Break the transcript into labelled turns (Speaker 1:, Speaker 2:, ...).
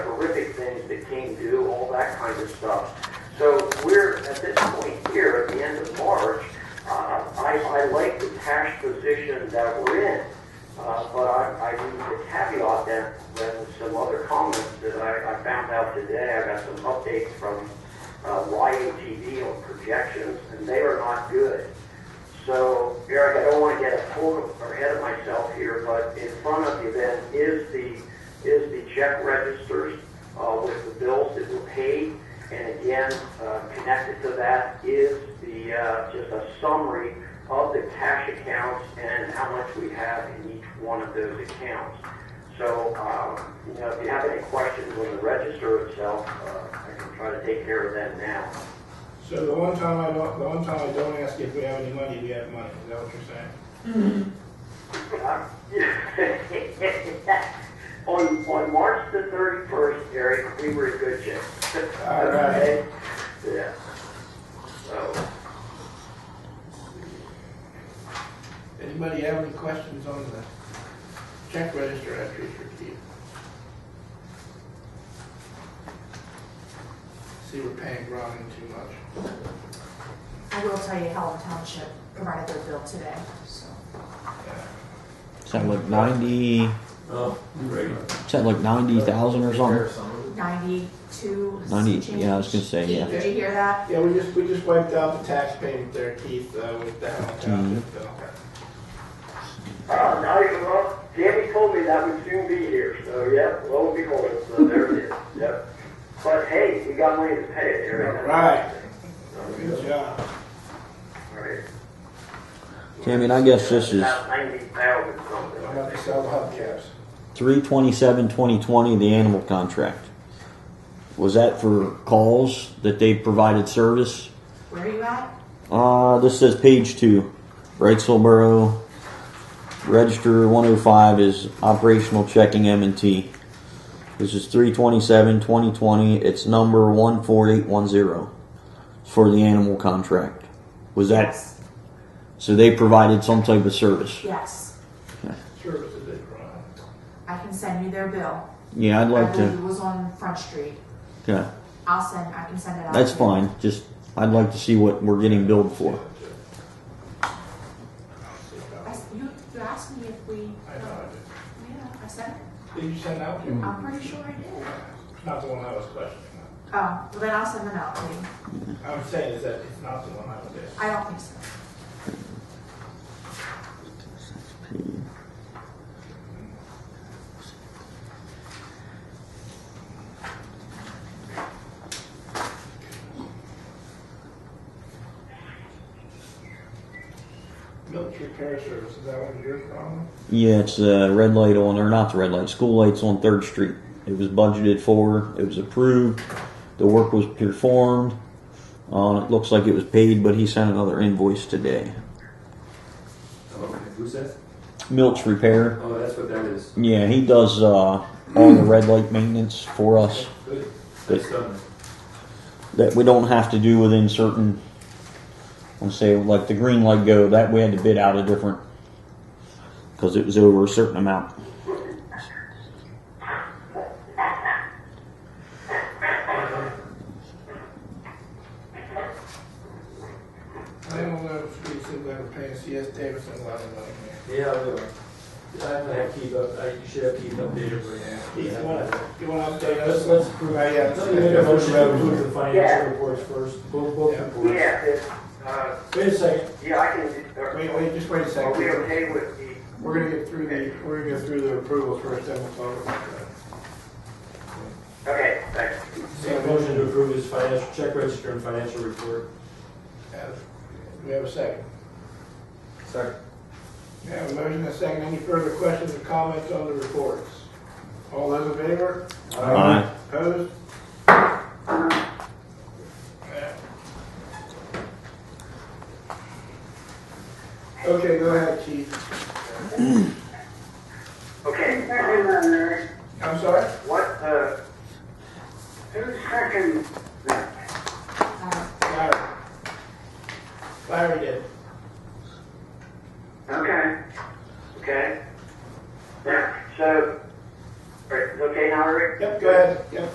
Speaker 1: horrific things that King do, all that kind of stuff. So we're at this point here, at the end of March, uh, I, I like the cash position that we're in, uh, but I, I need to caveat that with some other comments that I, I found out today. I got some updates from uh, YATV on projections, and they are not good. So, Eric, I don't want to get full or ahead of myself here, but in front of you then is the, is the check registers uh, with the bills that were paid. And again, uh, connected to that is the, uh, just a summary of the cash accounts and how much we have in each one of those accounts. So, um, you know, if you have any questions on the register itself, uh, I can try to take care of them now.
Speaker 2: So the one time I don't, the one time I don't ask if we have any money, we have money, is that what you're saying?
Speaker 1: On, on March the thirty-first, Eric, we were in good shape.
Speaker 2: All right.
Speaker 1: Yeah. So,
Speaker 2: Anybody have any questions on the check register entries for Keith? See, we're paying Robin too much.
Speaker 3: I will tell you Helen Township provided their bill today, so.
Speaker 4: Something like ninety.
Speaker 5: Oh, great.
Speaker 4: Something like ninety thousand or something.
Speaker 3: Ninety-two. some
Speaker 4: 90 yeah, I was gonna
Speaker 3: change.
Speaker 4: say, yeah.
Speaker 3: Keith, Did you hear that?
Speaker 2: Yeah, we just, we just wiped out the tax payment there, Keith, uh, with that one time.
Speaker 1: uh, now, you- well, Jamie told me that would soon be here, so, yep, lo and behold, so there it is, yep. But hey, we got money to pay it, Eric.
Speaker 2: All right. Good
Speaker 1: All
Speaker 2: job.
Speaker 1: right.
Speaker 4: Jamie, and I guess this is
Speaker 1: About ninety thousand something.
Speaker 2: I'm about to sell the hubcaps.
Speaker 4: three twenty-seven, twenty twenty, the animal contract. Was that for calls that they provided service?
Speaker 3: Where are you at?
Speaker 4: Uh, this says page two, Wrightsville Register 105 is operational checking M&T. This is 327-2020. It's number 14810 for the animal contract. Was that
Speaker 3: Yes.
Speaker 4: so? They provided some type of service.
Speaker 3: Yes,
Speaker 2: Services they provide.
Speaker 3: I can send you their bill.
Speaker 4: Yeah, I'd like
Speaker 3: I believe
Speaker 4: to.
Speaker 3: it was on Front Street.
Speaker 4: Okay,
Speaker 3: I'll send, I can send it out.
Speaker 4: that's
Speaker 3: to you.
Speaker 4: fine. Just I'd like to see what we're getting billed for.
Speaker 3: I s- You, you asked me if we,
Speaker 2: I know
Speaker 3: yeah, I sent it.
Speaker 2: I did. Did you send out? to-
Speaker 3: I'm pretty sure I did.
Speaker 2: Not the one I was questioning.
Speaker 3: Oh, well then I'll send them out to you.
Speaker 2: I'm saying is that it's not the one I was asking.
Speaker 3: I don't think so.
Speaker 2: Milk repair service, is that one of your problem?
Speaker 4: Yeah, it's the red light on, or not the red light, school lights on Third Street. It was budgeted for, it was approved, the work was performed. Uh, it looks like it was paid, but he sent another invoice today.
Speaker 5: Oh, who says?
Speaker 4: Milch Repair.
Speaker 5: Oh, that's what that is.
Speaker 4: Yeah, he does uh, all the red light maintenance for us
Speaker 5: Good.
Speaker 4: Good.
Speaker 5: That's done.
Speaker 4: that we don't have to do within certain. Let's say, like the green light go, that we had to bid out a different because it was over a certain amount.
Speaker 2: I don't know if we should ever pay CS Davidson a lot of money.
Speaker 5: Yeah, I do. I have to have keep up, I you should have keep updated with that.
Speaker 2: Keith, you wanna, you wanna update us? Let's prove. I, yeah.
Speaker 6: Let me make a motion to approve the
Speaker 1: Yeah.
Speaker 6: financial reports first, both, both
Speaker 2: Yeah.
Speaker 6: reports.
Speaker 1: Yeah, it- uh,
Speaker 6: Wait a second,
Speaker 1: yeah, I can,
Speaker 2: Wait,
Speaker 1: are
Speaker 2: wait, just wait a
Speaker 1: are we
Speaker 2: second.
Speaker 1: okay with the
Speaker 2: We're gonna get through the, we're gonna get through the approval first, then we'll talk about that.
Speaker 1: Okay, thanks.
Speaker 6: make a motion to approve his financial, check register and financial report.
Speaker 2: Have- Do we have a second?
Speaker 6: Second.
Speaker 2: We have a motion and a second. Any further questions or comments on the reports? All those in favor?
Speaker 4: Aye.
Speaker 2: Opposed? Yeah. Okay, go ahead, Keith.
Speaker 1: Okay,
Speaker 2: I'm sorry?
Speaker 1: what, uh, who second?
Speaker 3: Uh,
Speaker 2: Larry. Larry did.